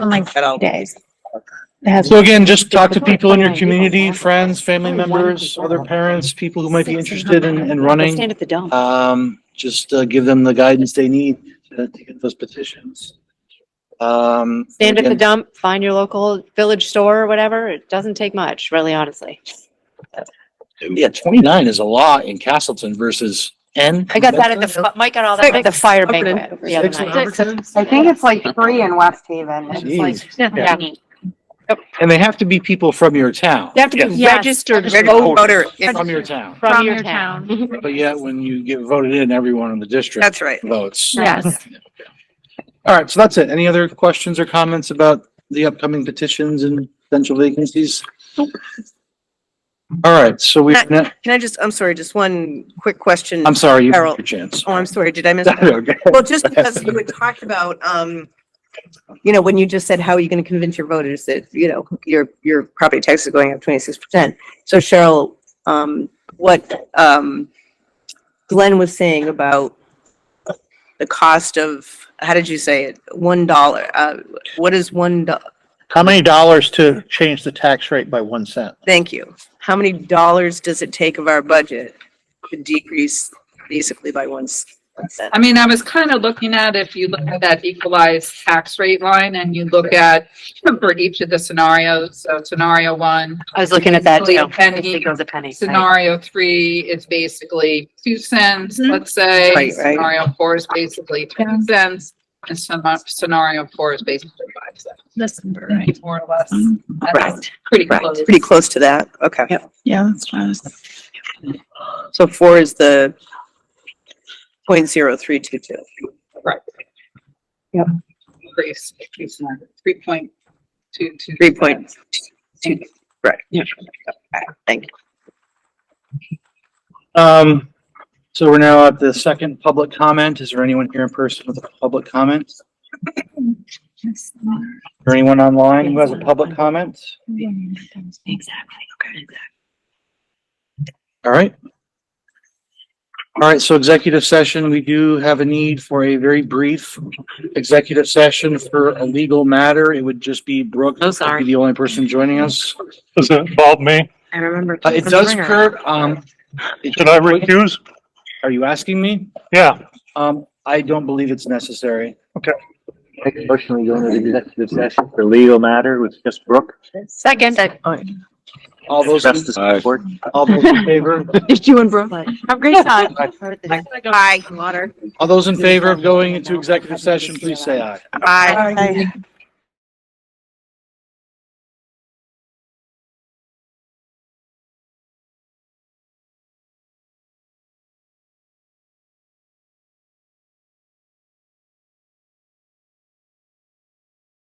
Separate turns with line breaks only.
I'm like
And I'll-
days. It has-
So again, just talk to people in your community, friends, family members, other parents, people who might be interested in, in running.
Stand at the dump.
Um, just uh, give them the guidance they need to to get those petitions. Um.
Stand at the
again,
dump, find your local village store or whatever. It doesn't take much, really honestly.
Yeah, twenty-nine is a lot in Castleton versus N.
I got that at the, fi- Mike got all that at the fire banquet the other
Six in
night.
Hubbardton?
I think it's like three in West Haven. It's like-
Jeez.
Yeah.
And they have to be people from your town.
They have to be
Yes.
registered
Voter, if-
From your town.
from your town.
But yet, when you get voted in, everyone in the district
that's right.
votes.
Yes.
All right, so that's it. Any other questions or comments about the upcoming petitions and potential vacancies? All right, so we,
Can I just, I'm sorry, just one quick question.
I'm sorry, you
Carol.
have your chance.
Oh, I'm sorry, did I miss?
Okay.
Well, just because you had talked about, um, you know, when you just said, how are you going to convince your voters that, you know, your, your property tax is going up twenty-six percent? So Cheryl, um, what, um, Glenn was saying about the cost of, how did you say it? One dollar, uh, what is one, do-
How many dollars to change the tax rate by one cent?
thank you. How many dollars does it take of our budget to decrease basically by one s- one cent?
I mean, I was kind of looking at, if you look at that equalized tax rate line and you look at for each of the scenarios, so scenario one,
I was looking at that too.
Penny.
It goes a penny. right?
scenario three is basically two cents, let's say.
Right, right.
Scenario four is basically ten cents, and some, scenario four is basically five cents,
That's
right, more or less. That's
Right,
Pretty
Right,
close.
pretty close to that, okay.
Yeah, that's what I was.
So four is the point zero three two two.
Increase, three point two, two.
Three point
two.
Thank you.
Um, so we're now at the second public comment. Is there anyone here in person with a public comment? Is there anyone online who has a public comment?
Exactly, okay.
All right. All right, so executive session, we do have a need for a very brief executive session for a legal matter. It would just be Brooke.
Oh, sorry.
would be The only person joining us.
Does it involve me?
I remember.
Uh, it does, Kurt, um.
Should I recuse?
Are you asking me?
Yeah.
Um, I don't believe it's necessary.
Personally, going to the executive session for legal matter with just Brooke.
Second.
All those,
Justice Court.
all those in favor,
Just you and Brooke. Have a great time.
Aye. Water.
all those in favor of going into executive session, please say aye.
Aye.